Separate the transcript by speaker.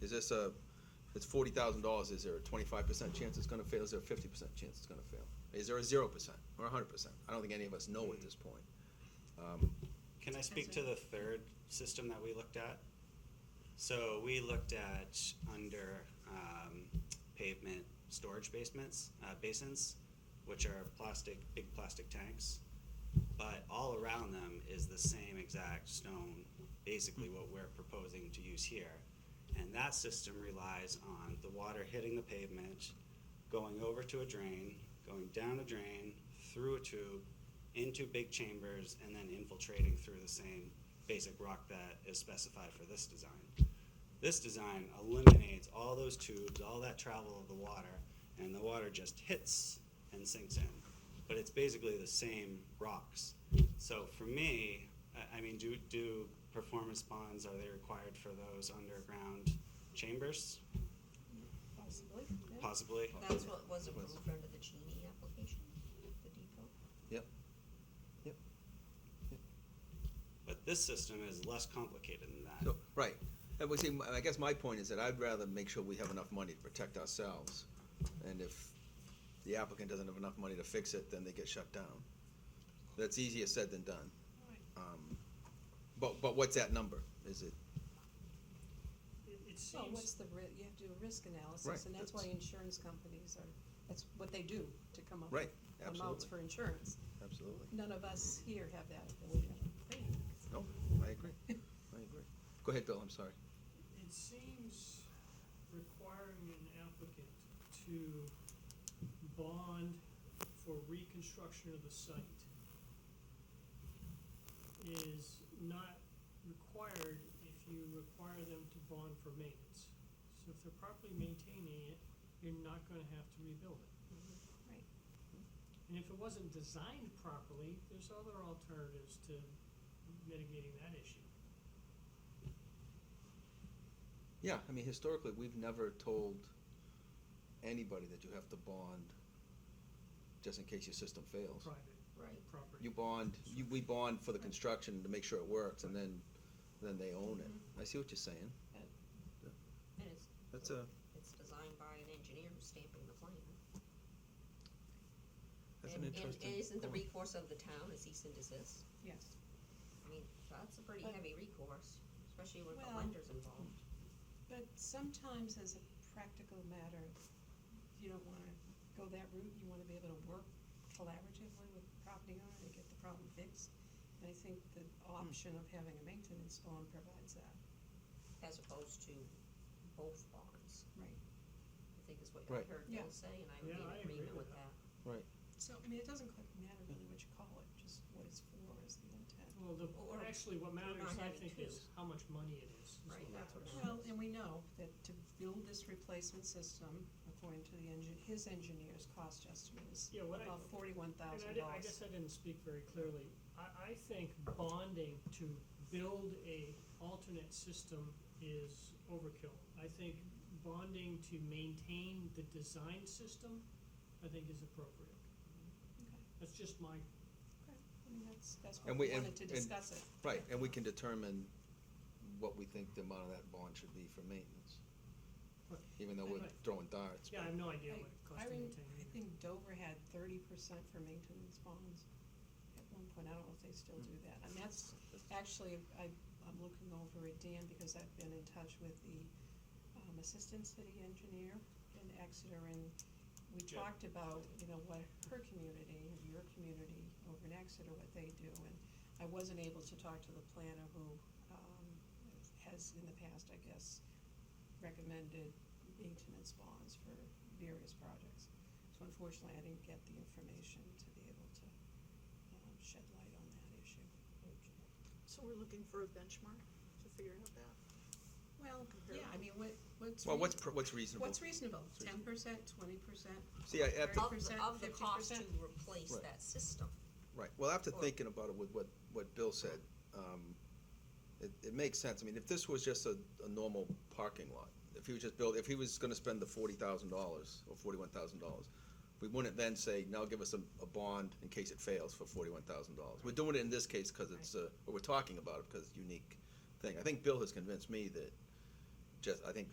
Speaker 1: is this a, it's forty thousand dollars, is there a twenty-five percent chance it's gonna fail, is there a fifty percent chance it's gonna fail? Is there a zero percent or a hundred percent? I don't think any of us know at this point. Um,
Speaker 2: Can I speak to the third system that we looked at? So we looked at under um, pavement storage basements, uh, basins, which are plastic, big plastic tanks. But all around them is the same exact stone, basically what we're proposing to use here. And that system relies on the water hitting the pavement, going over to a drain, going down a drain, through a tube, into big chambers, and then infiltrating through the same basic rock that is specified for this design. This design eliminates all those tubes, all that travel of the water, and the water just hits and sinks in. But it's basically the same rocks. So for me, I, I mean, do, do performance bonds, are they required for those underground chambers?
Speaker 3: Possibly.
Speaker 2: Possibly.
Speaker 3: That's what was approved under the Genie application, the depot.
Speaker 1: Yep, yep.
Speaker 2: But this system is less complicated than that.
Speaker 1: So, right, and we see, m- I guess my point is that I'd rather make sure we have enough money to protect ourselves. And if the applicant doesn't have enough money to fix it, then they get shut down. That's easier said than done. Um, But, but what's that number? Is it,
Speaker 4: It- It
Speaker 3: Oh,
Speaker 5: Well, what's
Speaker 4: seems,
Speaker 5: the ri- you have to do a risk
Speaker 1: Right,
Speaker 5: analysis, and that's why
Speaker 1: that's-
Speaker 5: insurance companies are, that's what they do, to come up
Speaker 1: Right,
Speaker 5: with amounts
Speaker 1: absolutely.
Speaker 5: for insurance.
Speaker 1: absolutely,
Speaker 5: None of us here have that ability.
Speaker 1: no, I agree, I agree. Go ahead, Bill, I'm sorry.
Speaker 4: it seems requiring an applicant to bond for reconstruction of the site is not required if you require them to bond for maintenance. So if they're properly maintaining it, you're not gonna have to rebuild it.
Speaker 3: right.
Speaker 4: And if it wasn't designed properly, there's other alternatives to mitigating that issue.
Speaker 1: Yeah, I mean, historically, we've never told anybody that you have to bond just in case your system fails.
Speaker 4: private
Speaker 3: Right.
Speaker 4: property.
Speaker 1: You bond, you, we bond for the construction to make sure it works, and then, then they own
Speaker 3: Mm-hmm.
Speaker 1: it. I see what you're saying.
Speaker 3: And it's,
Speaker 1: That's a,
Speaker 3: it's designed by an engineer who's stamping the plan.
Speaker 1: that's an
Speaker 3: And-
Speaker 1: interesting.
Speaker 3: And isn't the
Speaker 1: point.
Speaker 3: recourse of the town a cease and desist?
Speaker 5: Yes.
Speaker 3: I mean, that's a pretty
Speaker 5: But-
Speaker 3: heavy recourse, especially when the
Speaker 5: Uh, Well-
Speaker 3: lender's involved.
Speaker 5: But sometimes as a practical matter, you don't wanna go that route, you wanna be able to work collaboratively with the property owner to get the problem fixed. And I think the option of having a maintenance bond provides that.
Speaker 3: as opposed to both bonds,
Speaker 5: Right.
Speaker 3: I think is what
Speaker 1: Right.
Speaker 3: I heard
Speaker 5: Yeah.
Speaker 3: Bill say, and I would
Speaker 4: Yeah,
Speaker 3: be
Speaker 4: I
Speaker 3: in
Speaker 4: agree
Speaker 3: agreement
Speaker 4: with
Speaker 3: with that.
Speaker 5: So, I mean, it doesn't quite matter really what you call it, just what it's for is the intent.
Speaker 4: Well, the,
Speaker 3: Or-
Speaker 4: actually, what matters,
Speaker 3: not
Speaker 4: I
Speaker 3: having
Speaker 4: think,
Speaker 3: two.
Speaker 4: is how much money it is. is
Speaker 3: Right, that's what
Speaker 4: matters.
Speaker 3: matters.
Speaker 5: Well, and we know that to build this replacement system, according to the engine, his engineer's cost estimate is
Speaker 4: Yeah, what I,
Speaker 5: about forty-one
Speaker 4: and I
Speaker 5: thousand
Speaker 4: di- I
Speaker 5: dollars.
Speaker 4: guess I didn't speak very clearly. I, I think bonding to build a alternate system is overkill. I think bonding to maintain the design system, I think is appropriate. That's just my,
Speaker 5: I mean, that's, that's what
Speaker 1: And
Speaker 5: we
Speaker 1: we- and-
Speaker 5: wanted to
Speaker 1: and-
Speaker 5: discuss it.
Speaker 1: Right, and we can determine what we think the amount of that bond should be for maintenance.
Speaker 4: Right.
Speaker 1: Even though we're
Speaker 4: Right.
Speaker 1: throwing darts.
Speaker 4: yeah, I have no idea what it costs
Speaker 5: I
Speaker 4: to
Speaker 5: mean,
Speaker 4: maintain.
Speaker 5: I think Dover had thirty percent for maintenance bonds at one point, I don't know if they still do that, and that's, actually, I, I'm looking over at Dan because I've been in touch with the, um, assistant city engineer in Exeter, and we
Speaker 4: Yeah.
Speaker 5: talked about, you know, what her community, or your community over in Exeter, what they do, and I wasn't able to talk to the planner who, um, has in the past, I guess, recommended maintenance bonds for various projects. So unfortunately, I didn't get the information to be able to, um, shed light on that issue.
Speaker 6: So we're looking for a benchmark to figure out that.
Speaker 5: Well, yeah, I mean, what, what's.
Speaker 1: Well,
Speaker 5: rea-
Speaker 1: what's, pr- what's reasonable?
Speaker 5: What's reasonable? Ten percent, twenty percent?
Speaker 1: See, I, after,
Speaker 3: Of the,
Speaker 5: 30%,
Speaker 3: of the cost to
Speaker 5: 50%.
Speaker 3: replace
Speaker 1: Right.
Speaker 3: that system,
Speaker 1: Right, well, after
Speaker 3: Or-
Speaker 1: thinking about it with what, what Bill said, um, it, it makes sense, I mean, if this was just a, a normal parking lot, if he was just build, if he was gonna spend the forty thousand dollars, or forty-one thousand dollars, we wouldn't then say, now give us a, a bond in case it fails for forty-one thousand dollars. We're doing it in this case, cause it's uh, a, or we're talking about it, because it's a unique thing, I think Bill has convinced me that just, I think